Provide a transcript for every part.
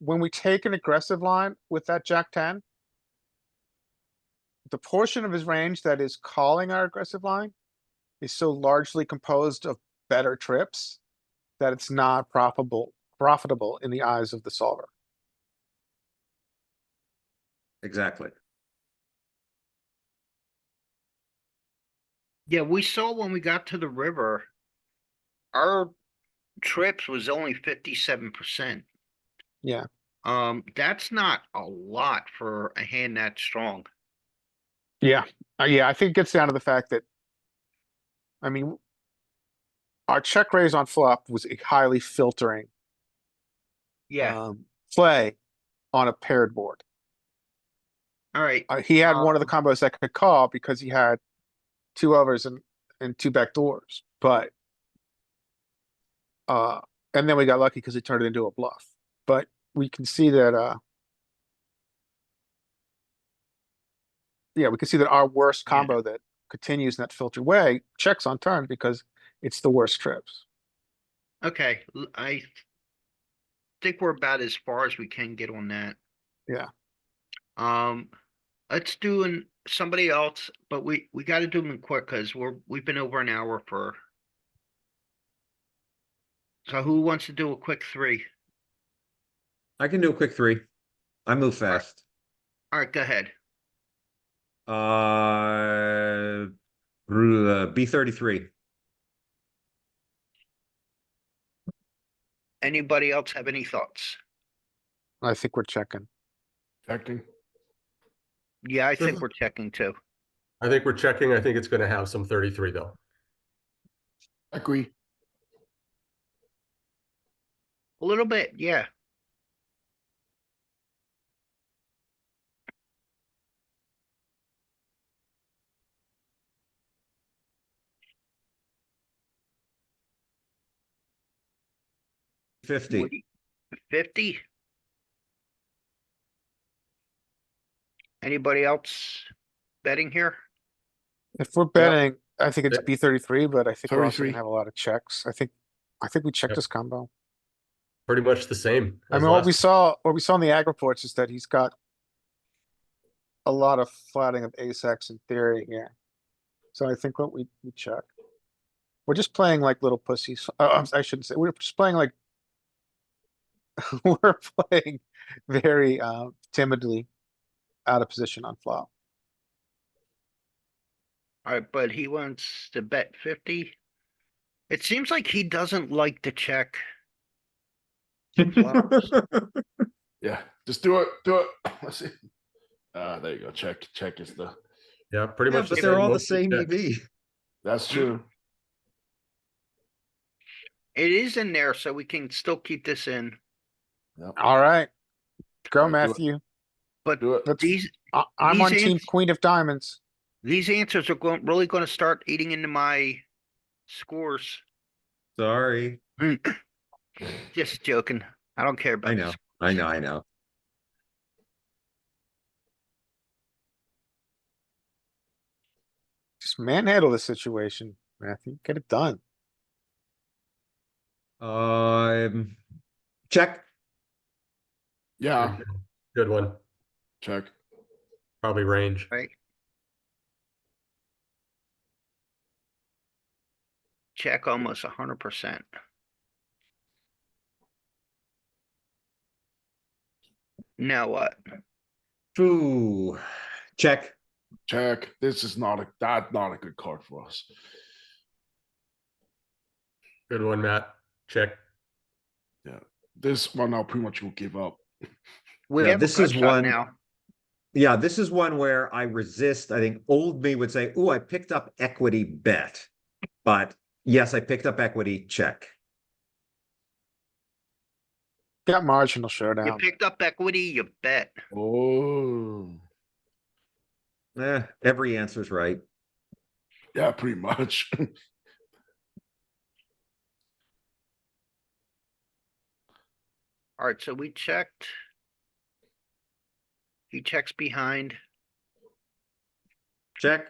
when we take an aggressive line with that jack ten, the portion of his range that is calling our aggressive line is so largely composed of better trips that it's not profitable, profitable in the eyes of the solver. Exactly. Yeah, we saw when we got to the river. Our trips was only fifty-seven percent. Yeah. Um, that's not a lot for a hand that strong. Yeah, uh, yeah, I think it gets down to the fact that, I mean, our check raise on flop was a highly filtering Yeah, um, play on a paired board. alright, Uh, he had one of the combos that could call because he had two overs and, and two back doors, but uh, and then we got lucky because he turned it into a bluff, but we can see that, uh, yeah, we can see that our worst Yeah. combo that continues in that filtered way checks on turn because it's the worst trips. okay, l- I think we're about as far as we can get on that. Yeah. Um, let's do an, somebody else, but we, we gotta do them quick, cause we're, we've been over an hour for. So who wants to do a quick three? I can do a quick three. I move fast. Alright, go ahead. Uh, B thirty-three. Anybody else have any thoughts? I think we're checking. Checking. Yeah, I think we're checking too. I think we're checking. I think it's gonna have some thirty-three though. Agree. A little bit, yeah. Fifty. Fifty? Anybody else betting here? If we're betting, I think it's Yeah. B thirty-three, but I think we're also 33. gonna have a lot of checks. I think, I think we checked Yep. this combo. Pretty much the same. I as mean, what last- we saw, what we saw in the ag reports is that he's got a lot of flatting of ace X in theory here. So I think what we, we check. We're just playing like little pussies. Uh, I'm- I shouldn't say, we're just playing like we're playing very uh, timidly out of position on flop. Alright, but he wants to bet fifty. It seems like he doesn't like to check. Flowers. Yeah, just do it, do it. Let's see. Uh, there you go. Check, check is the, Yeah, pretty Yeah, much. but they're all the Most same E check. EV. that's true. It is in there, so we can still keep this in, Yep, All right. Go Alright, do it. Matthew. but do it. Let's- these, I, I'm These on team ants- queen of diamonds. these answers are going, really gonna start eating into my scores. Sorry. Just joking. I don't care about I this. know, I know, I know. Just manhandle the situation, Matthew. Get it done. Um, check. Yeah, Good one. check. Probably range. Right? Check almost a hundred percent. Now what? Ooh, check. Check. This is not a, that not a good card for us. Good one, Matt. Check. This one now pretty much will give up. We Yeah, have a this is gut shot one- Now, Yeah, this is one where I resist. I think old me would say, ooh, I picked up equity bet. But yes, I picked up equity, check. Got marginal you showdown. picked up equity, you bet. Oh, Eh, every answer's right. yeah, pretty much. Alright, so we checked. He checks behind. Check.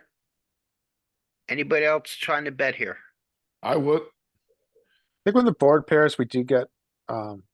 Anybody else trying to bet here? I would. I think when the board pairs, we do get, um,